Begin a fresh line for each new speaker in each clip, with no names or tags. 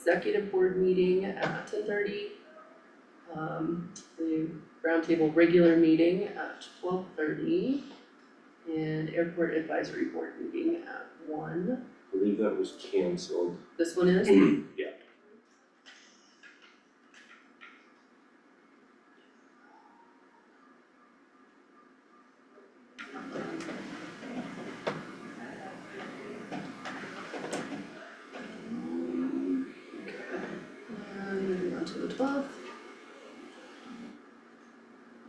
executive board meeting at ten thirty. Um, the roundtable regular meeting at twelve thirty. And airport advisory board meeting at one,
I believe that was canceled.
this one is?
Yeah.
Um, moving on to the twelfth.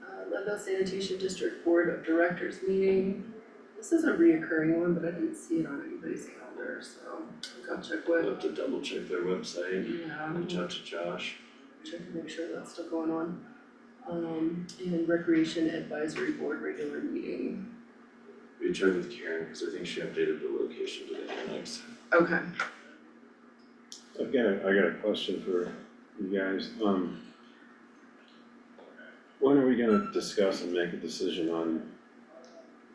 Uh, Leadville Sanitation District Board of Directors meeting. This is a reoccurring one, but I didn't see it on anybody's calendar, so I'll go check
I'll
with,
have to double check their website,
yeah,
reach out to Josh.
check and make sure that's still going on. Um, and Recreation Advisory Board regular meeting.
We checked with Karen, cause I think she updated the location to the annex.
Okay,
I've got, a- I got a question for you guys, um. When are we gonna discuss and make a decision on,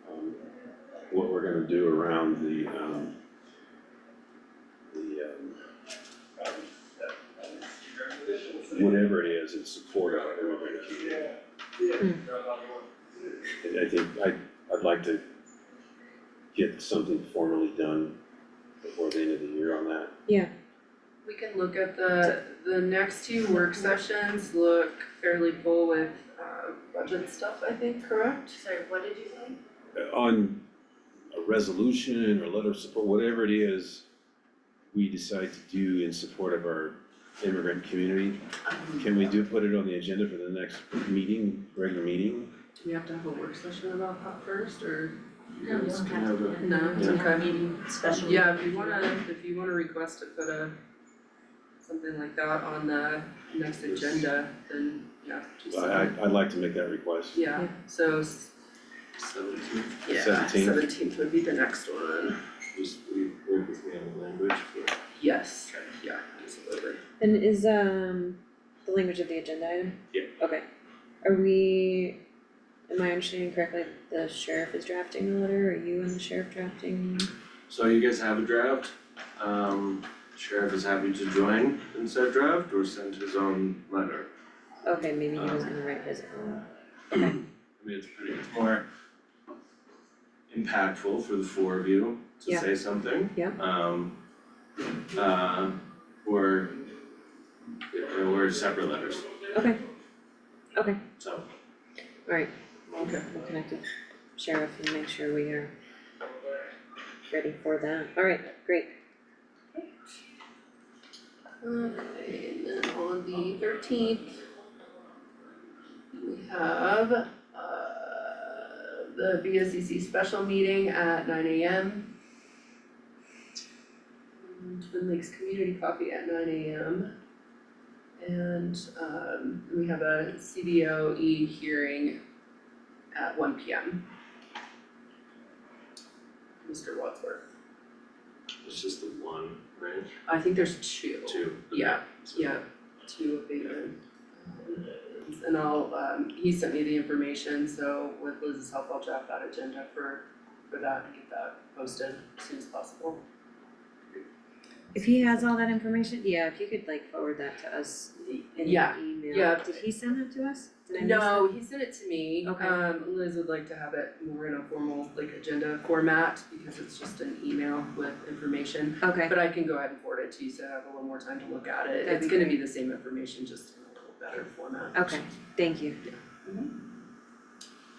um, what we're gonna do around the, um, the, uh, um, whatever it is in support of everybody community? I, I think, I, I'd like to get something formally done before the end of the year on that.
we can look at the, the next two work sessions look fairly full with, uh, budget stuff, I think, correct?
Sorry, what did you say?
on a resolution or letter of support, whatever it is we decide to do in support of our immigrant community, can we do, put it on the agenda for the next meeting, regular meeting?
Do we have to have a work session about that first, or?
No, you don't have to.
No,
We
it's
have
okay.
a meeting, special.
Yeah, if you wanna, if you wanna request to put a, something like that on the next agenda, then, yeah, just,
I, I- I'd like to make that request.
yeah, so, s-
Seventeen,
yeah,
17th.
seventeenth would be the next one,
just we work with me on the language for.
yes, yeah, absolutely.
And is um the language of the agenda item?
Yeah.
Okay, are we, am I understanding correctly, that the sheriff is drafting the letter, are you and the sheriff drafting?
So you guys have a draft, um, sheriff is happy to join in said draft or send his own letter.
Okay, maybe he was gonna write his own,
I mean, it's pretty, it's more impactful for the four of you to
Yeah.
say something.
Yeah.
Um, uh, or, or separate letters,
okay, okay,
so.
alright,
Okay.
we'll connect with sheriff and make sure we are ready for that, alright, great.
Okay, and then on the thirteenth, we have, uh, the BSCC special meeting at nine AM. Um, Twin Lakes Community Coffee at nine AM. And, um, we have a CBOE E hearing at one PM. Mr. Wadsworth,
It's just the one, right,
I think there's two.
two?
Yeah,
So-
yeah, two abatement. Um, And I'll, um, he sent me the information, so with Liz's help, I'll draft that agenda for, for that and get that posted as soon as possible.
If he has all that information, yeah, if you could like forward that to us in
Yeah,
an email,
yeah.
did he send that to us? Did I miss that?
No, he sent it to me.
Okay.
Um, Liz would like to have it more in a formal, like, agenda format, because it's just an email with information.
Okay,
But I can go ahead and forward it to you, so I have a little more time to look at it.
That'd
It's
be
gonna be
great.
the same information, just in a little better format.
okay, thank you.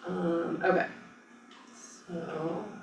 Um, okay. So